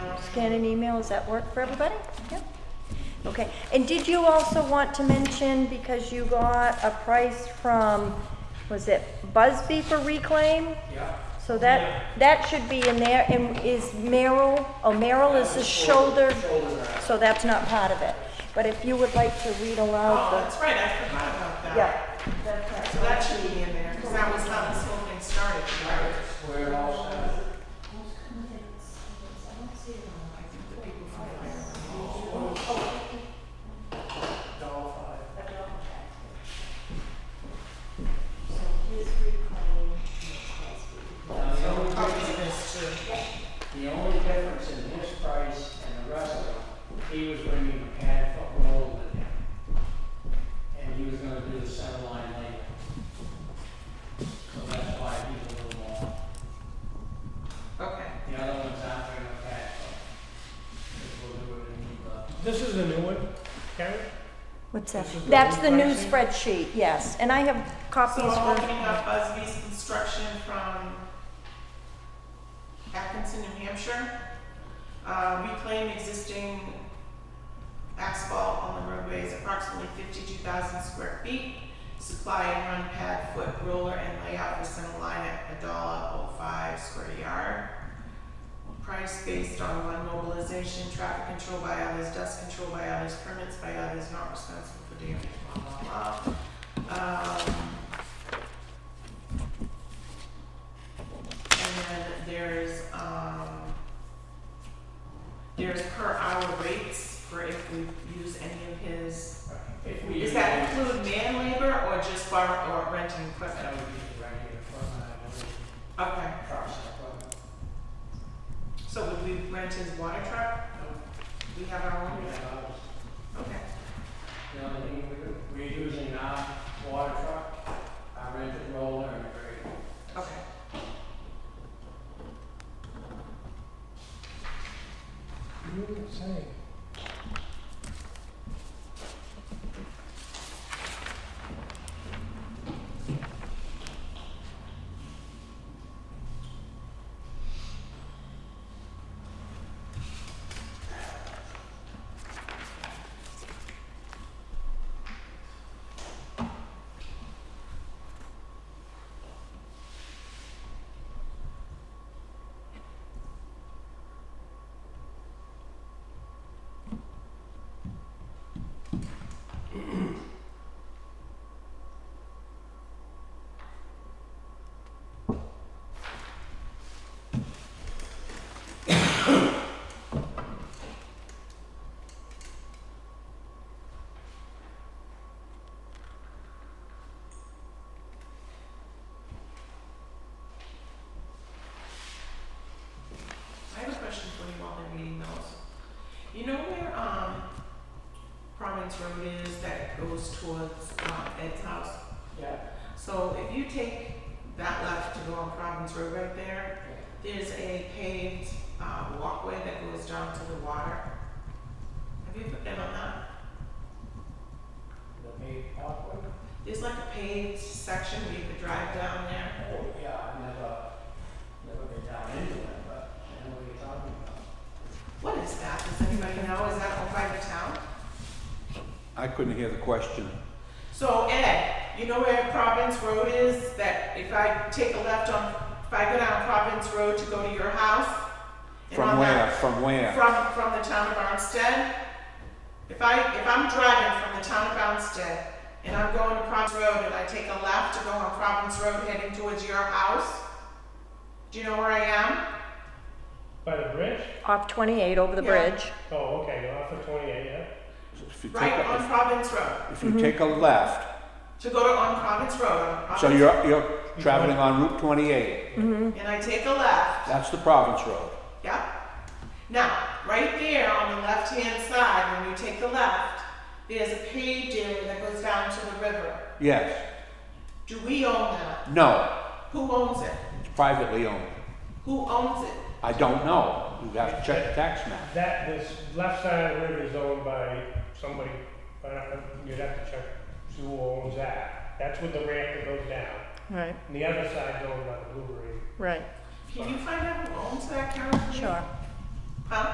scan an email, does that work for everybody? Yep. Okay, and did you also want to mention, because you got a price from, was it Busby for reclaim? Yeah. So that, that should be in there, and is Merrill, oh, Merrill is the shoulder, so that's not part of it. But if you would like to read Oh, aloud that's right, I forgot about the, that. yeah. So that should be in there, because that was how this whole thing started, right? Copies of this too. The only difference in his price and the rest of them, he was bringing a pad foot roll with him. And he was gonna do the center line later. So that's why he's a little more, Okay. the other ones aren't bringing a pad foot. We'll do it in the, This is a new one, Karen? What's that? This is the That's new the new pricing? spreadsheet, yes, and I have So copies I'm for, opening up Busby's construction from Atkinson, New Hampshire. Uh, reclaim existing asphalt on the roadways, approximately fifty-two thousand square feet. Supply and run pad, foot roller and layout for center line at a dollar oh five square yard. Price based on one mobilization, traffic control by others, dust control by others, permits by others, not responsible for damage, blah, blah, blah. Um, And then there's, um, there's per hour rates for if we use any of his, uh, if we. does that include man labor or just bar, or renting That equipment? would be the regular equipment, I believe, Okay, trucks and equipment. so would we rent his water truck? We have our We own, have ours. okay. The only thing we're, we're using our water truck, our rented roller and grader. Okay. You were saying. I have a question for you while they're reading those. You know where, um, Providence Road is that goes towards, uh, Ed's house? Yeah, So if you take that left to go on Providence Road right there, okay. there's a paved, uh, walkway that goes down to the water. Have you been on that? the big walkway. There's like a paved section where you could drive down there. Oh, yeah, I've never, never been down into it, but I know what you're talking about. What is that? Does anybody know? Is that owned by the town? I couldn't hear the question. So Ed, you know where Providence Road is? That if I take a left on, if I go down Providence Road to go to your house? and From on where, that- from where? From, from the town of Armstead. If I, if I'm driving from the town of Armstead and I'm going to Providence Road and I take a left to go on Providence Road heading towards your house, do you know where I am? By the bridge? off 28 over the Yeah. bridge. Oh, okay, off of twenty-eight, yeah? If you take, Right on a- Providence Road. if you take a left, To go to on Providence Road, on so Providence, you're, you're traveling on Route 28, and I take a left. that's the Province Road. Yep. Now, right there on the left-hand side, when you take the left, there's a paved area that goes down to the river. Yes, Do we own that? no, Who owns it? it's privately owned. Who owns it? I don't know, you have to check the tax map. That, this left side of the river is owned by somebody, but I don't- you'd have to check who owns that. That's with the ramp that goes down. Right, And the other side's owned by the Blueberry. right, Can you find out who owns that, Carol? please? sure.